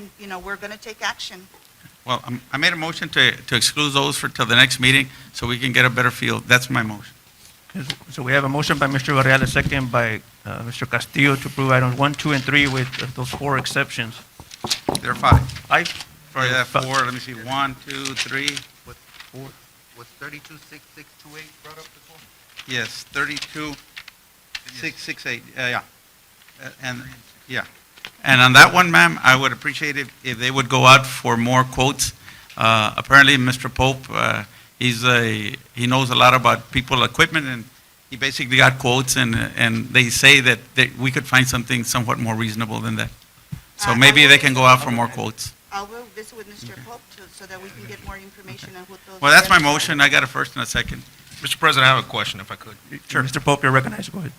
then, you know, we're going to take action. Well, I'm- I made a motion to, to exclude those for, till the next meeting, so we can get a better feel. That's my motion. Yes, So we have a motion by Mr. Varela, second by uh, Mr. Castillo to approve items one, two, and three with uh, those four exceptions. There are five. Aye? Sorry, there are four, let me see, one, two, three, Was, was thirty-two six six two eight brought up before? yes, thirty-two, six, six, eight, uh, yeah. Uh, And, yeah. And on that one, ma'am, I would appreciate if, if they would go out for more quotes. Uh, apparently, Mr. Pope, uh, he's a, he knows a lot about people, equipment, and he basically got quotes, and, and they say that, that we could find something somewhat more reasonable than that. Uh, So I maybe will- they can go out for more quotes. I will visit with Mr. Pope to- so that we can get more information on what those. Well, that's my items are. motion. I got a first and a second. Mr. President, I have a question if I could. Sure. Mr. Pope, you're recognized, go ahead.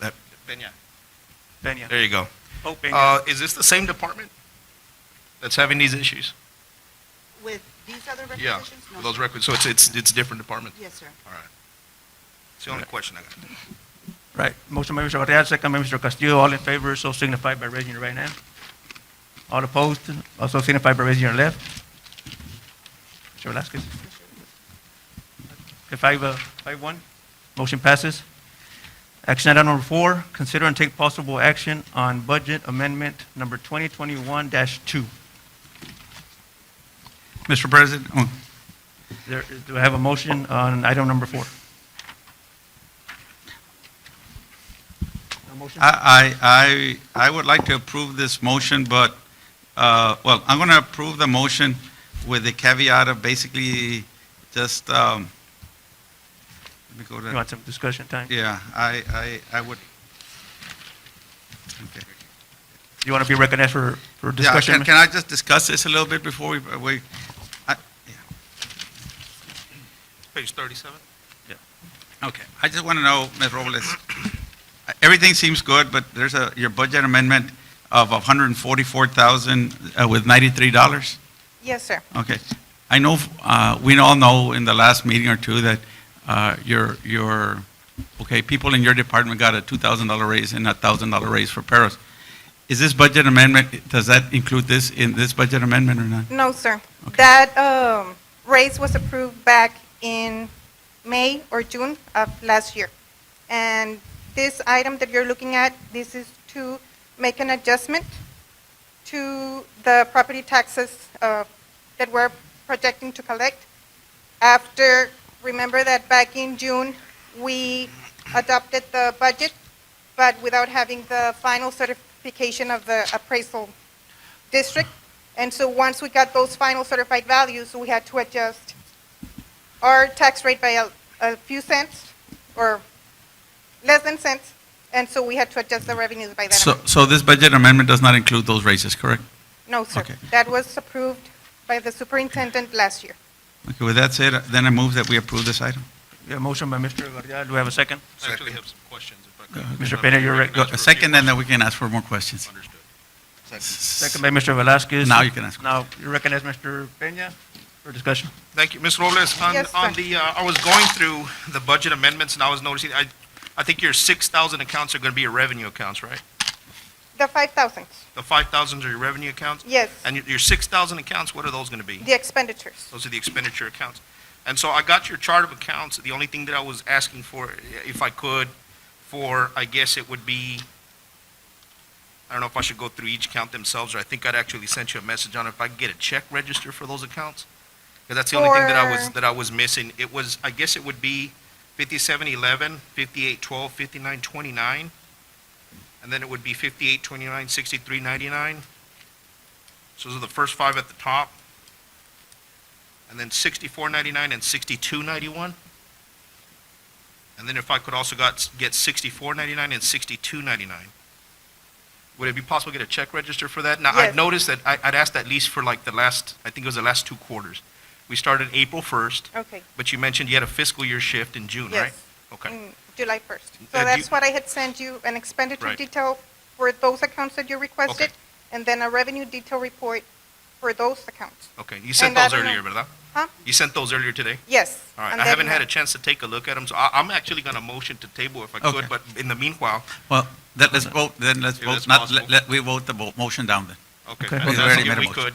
That- Peña. Pena. There you go. Pope, Pena. Uh, is this the same department that's having these issues? With these other Yeah, requisitions? No, those sir. records, so it's, it's, it's different department? Yes, sir. All right. It's the only question I got. Right, motion by Mr. Varela, second by Mr. Castillo, all in favor, so signify by raising your right hand. All opposed, also signify by raising your left. Mr. Velazquez. Okay, Five, uh, five one, motion passes. Action item number four, consider and take possible action on budget amendment number 2021-2. Mr. President, oh, There, do I have a motion on item number four? No motion? I, I, I I would like to approve this motion, but, uh, well, I'm going to approve the motion with the caveat of basically just, um, let me go You to, want some discussion time? yeah, I, I, I would. Okay. You want to be recognized for, for Yeah, discussion? can- Can I just discuss this a little bit before we, we, I- yeah. Page thirty-seven? Okay, I just want to know, Ms. Robles, everything seems good, but there's a, your budget amendment of 144,000 uh, with $93? Yes, sir. Okay. I know, uh, we all know in the last meeting or two that uh, your, your, okay, people in your department got a $2,000 raise and a $1,000 raise for paras. Is this budget amendment, does that include this, in this budget amendment or not? No, sir. Okay. That um, raise was approved back in May or June of last year. And this item that you're looking at, this is to make an adjustment to the property taxes uh, that we're projecting to collect. After, remember that back in June, we adopted the budget, but without having the final certification of the appraisal district. And so once we got those final certified values, we had to adjust our tax rate by a, a few cents or less than cents. And so we had to adjust the revenues by that So, amount. so this budget amendment does not include those raises, correct? No, sir. okay. That was approved by the superintendent last year. Okay, with that said, then I move that we approve this item. Yeah, motion by Mr. Varela, do we have a second? I actually have some questions if I could. Mr. Pena, you're rec- Go- Second, and then we can ask for more questions. Understood. Second by Mr. Velazquez. Now you can ask. Now, you recognize Mr. Peña for discussion. Thank you. Ms. Robles, on, Yes, sir. on the, uh, I was going through the budget amendments and I was noticing, I, I think your six thousand accounts are gonna be your revenue accounts, right? The five thousands, The five thousands are your revenue accounts? yes, And your, your six thousand accounts, what are those gonna be? the expenditures. Those are the expenditure accounts. And so I got your chart of accounts. The only thing that I was asking for, if I could, for, I guess it would be, I don't know if I should go through each account themselves, or I think I'd actually sent you a message on if I could get a check register for those accounts. Because that's the only thing that I was, Or- that I was missing. It was, I guess it would be fifty-seven eleven, fifty-eight twelve, fifty-nine twenty-nine, and then it would be fifty-eight twenty-nine, sixty-three ninety-nine. So those are the first five at the top. And then sixty-four ninety-nine and sixty-two ninety-one. And then if I could also got, get sixty-four ninety-nine and sixty-two ninety-nine. Would it be possible to get a check register for that? Now, Yes. I'd noticed that, I, I'd asked at least for like the last, I think it was the last two quarters. We started April first, Okay, but you mentioned you had a fiscal year shift in June, right? yes, Mm. Okay, in July first. Uh, do So you- that's what I had sent you, an expenditure Right. detail for those accounts that you requested, and then a revenue detail report for those accounts. okay. You sent And I those don't know- earlier, ¿verdad? Huh? You sent those earlier today? Yes. All right, and I then, haven't had uh, a chance to take a look at them, so I, I'm actually gonna motion to table if I Okay. could, but in the meanwhile, Well, then let's vote, then let's If vote, that's not, possible. let, let- we vote the vote, motion down then. Okay. Okay. I Was was asking very if we minimal. could.